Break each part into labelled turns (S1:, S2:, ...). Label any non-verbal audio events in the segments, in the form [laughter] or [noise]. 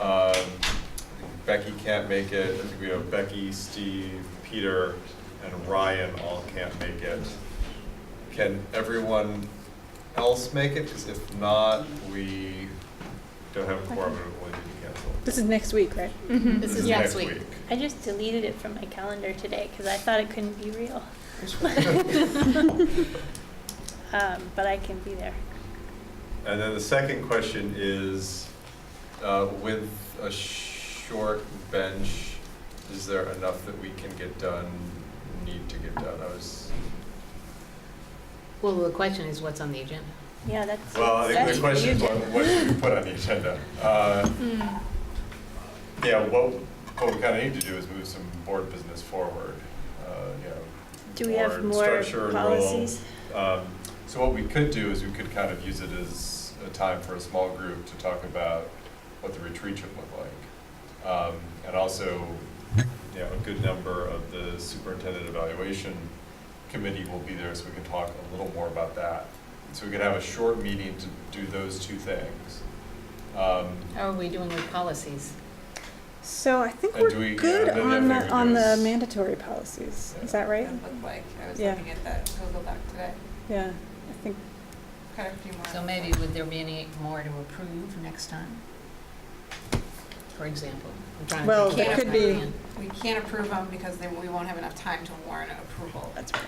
S1: Um, Becky can't make it, I think we have Becky, Steve, Peter, and Ryan all can't make it. Can everyone else make it? Because if not, we don't have a quorum, and it will need to cancel.
S2: This is next week, right?
S1: Mm-hmm.
S3: This is next week.
S4: I just deleted it from my calendar today because I thought it couldn't be real.
S3: [laughs]
S4: Um, but I can be there.
S1: And then the second question is, uh, with a short bench, is there enough that we can get done, need to get done? I was,
S3: Well, the question is what's on the agenda?
S4: Yeah, that's.
S1: well, I think
S4: that's
S1: the question is,
S4: you
S1: what
S4: did.
S1: what should we put on the agenda? Uh,
S3: Mm.
S1: Yeah, what, what we kind of need to do is move some board business forward, uh, you know.
S4: Do we have
S1: board
S4: more
S1: structure and role.
S4: policies?
S1: Um, So what we could do is we could kind of use it as a time for a small group to talk about what the retreat should look like. Um, And also, you know, a good number of the superintendent evaluation committee will be there, so we can talk a little more about that. So we could have a short meeting to do those two things. Um,
S3: How Oh, are we doing with policies?
S2: So I think
S1: And do
S2: we're
S1: we-
S2: good
S1: yeah, then
S2: on,
S1: I
S2: the
S1: think
S2: on
S1: it
S2: the
S1: is-
S2: mandatory policies. Is that right?
S5: It looked like, I was
S2: Yeah.
S5: looking at that Google Doc today,
S2: Yeah, I think,
S5: had a few more.
S3: So maybe would there be any more to approve next time? For example? I'm trying to
S2: Well,
S3: think
S5: it
S3: of
S5: could
S2: be-
S3: offhand.
S5: We can't approve them because then we won't have enough time to warrant approval.
S2: that's right.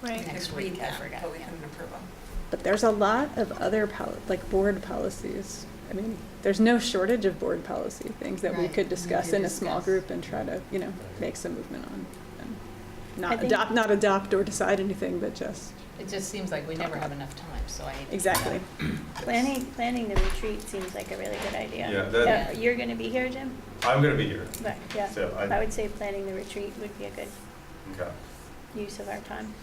S3: Right.
S5: We could
S3: Next
S5: read
S3: week, I
S5: them,
S3: forgot,
S5: But we
S3: yeah.
S5: couldn't approve them.
S2: But there's a lot of other poli, like board policies. I mean, there's no shortage of board policy things that we
S3: Right,
S2: could
S3: we
S2: discuss
S3: could
S2: in a small
S3: discuss.
S2: group and try to, you know, make some movement on. and
S4: I
S2: Not
S4: think-
S2: adopt, not adopt or decide anything, but just,
S3: It just seems like we never have enough time, so I hate to-
S2: exactly.
S4: Planning, planning the retreat seems like a really good idea.
S1: Yeah, that-
S4: Uh, You're gonna be here, Jim?
S1: I'm gonna be here,
S4: But, yeah,
S1: so
S4: I
S1: I,
S4: would say planning the retreat would be a good
S1: okay,
S4: use of our time.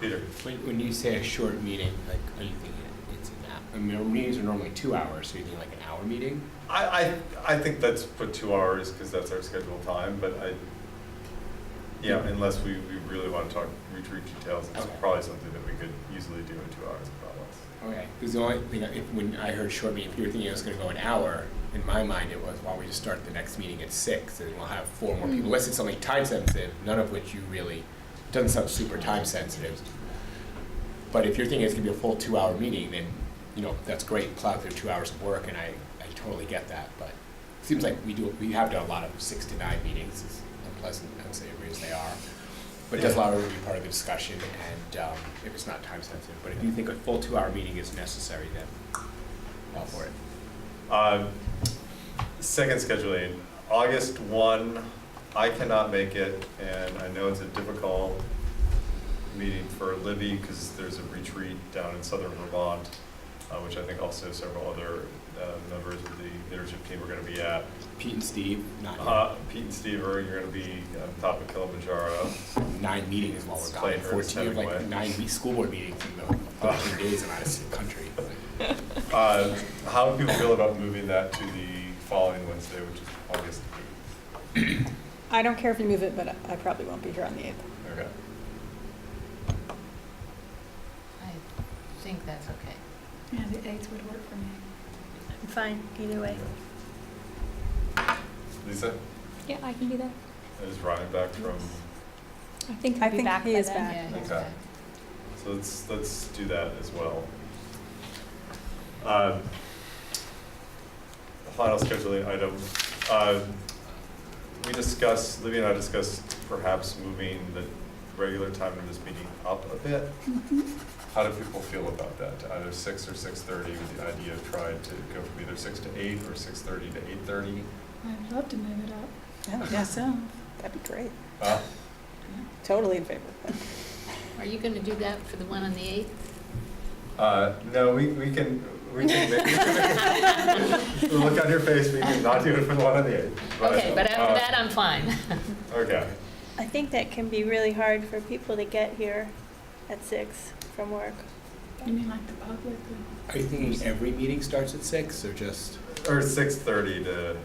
S1: Peter.
S6: When, when you say a short meeting, like, are you thinking it's an hour? I mean, meetings are normally two hours, so you think like an hour meeting?
S1: I, I, I think let's put two hours, because that's our scheduled time, but I, yeah, unless we, we really want to talk retreat details, it's
S6: Okay.
S1: probably something that we could easily do in two hours, probably.
S6: Okay. Because the only thing, if, when I heard short meeting, if you were thinking it was gonna go an hour, in my mind it was, why don't we just start the next meeting at six, and we'll have four more people, unless it's something time sensitive, none of which you really, doesn't sound super time sensitive. But if you're thinking it's gonna be a full two-hour meeting, then, you know, that's great, plow through two hours of work, and I, I totally get that, but it seems like we do, we have done a lot of six to nine meetings, as unpleasant and unsavory as they are. But it does allow everyone to be part of the discussion, and, um, if it's not time sensitive, but if you think a full two-hour meeting is necessary, then all for it.
S1: Uh, Second scheduling, August one, I cannot make it, and I know it's a difficult meeting for Libby, because there's a retreat down in southern Vermont, uh, which I think also several other, uh, members of the leadership team are gonna be at.
S6: Pete and Steve, not
S1: Uh, Pete and Steve are, you're gonna be on top of Kilimanjaro.
S6: nine meetings while we're gone,
S1: Played Ernest
S6: fourteen of like
S1: Hemingway.
S6: nine week school board meetings in the fourteen days I'm out of the country.
S1: Uh, How do people feel about moving that to the following Wednesday, which is August eighth?
S2: I don't care if you move it, but I probably won't be here on the eighth.
S1: Okay.
S3: I think that's okay.
S5: Yeah, the eighth would work for me.
S4: I'm fine, either way.
S1: Lisa,
S7: Yeah, I can do that.
S1: is Ryan back from,
S7: I think he'll
S2: I
S7: be
S2: think
S7: back
S2: he
S7: by
S2: is
S7: then.
S2: back.
S3: Yeah, that's
S1: Okay. so let's, let's do that as well. Um, Final scheduling item. Um, We discussed, Libby and I discussed perhaps moving the regular time of this meeting up a bit. How do people feel about that? To Either six or six-thirty, with the idea of trying to go from either six to eight or six-thirty to eight-thirty?
S7: I'd love to move it up.
S2: Oh, yeah, so, that'd be great.
S1: Huh?
S2: Totally in favor of that.
S3: Are you gonna do that for the one on the eighth?
S1: Uh, no, we, we can, we can make, [laughs]
S3: [laughs]
S1: the look on your face, we can not do it for the one on the eighth.
S3: Okay, but
S1: uh,
S3: after that, I'm fine.
S1: Okay,
S4: I think that can be really hard for people to get here at six from work.
S7: You mean like the public?
S6: Are you thinking every meeting starts at six or just?
S1: or six-thirty to.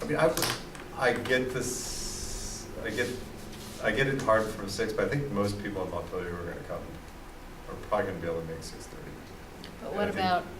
S1: I mean, I, I get this, I get, I get it hard from six, but I think most people in Montpelier who are gonna come, are probably gonna be able to make six-thirty.
S3: But
S1: I
S3: what
S1: think-
S3: about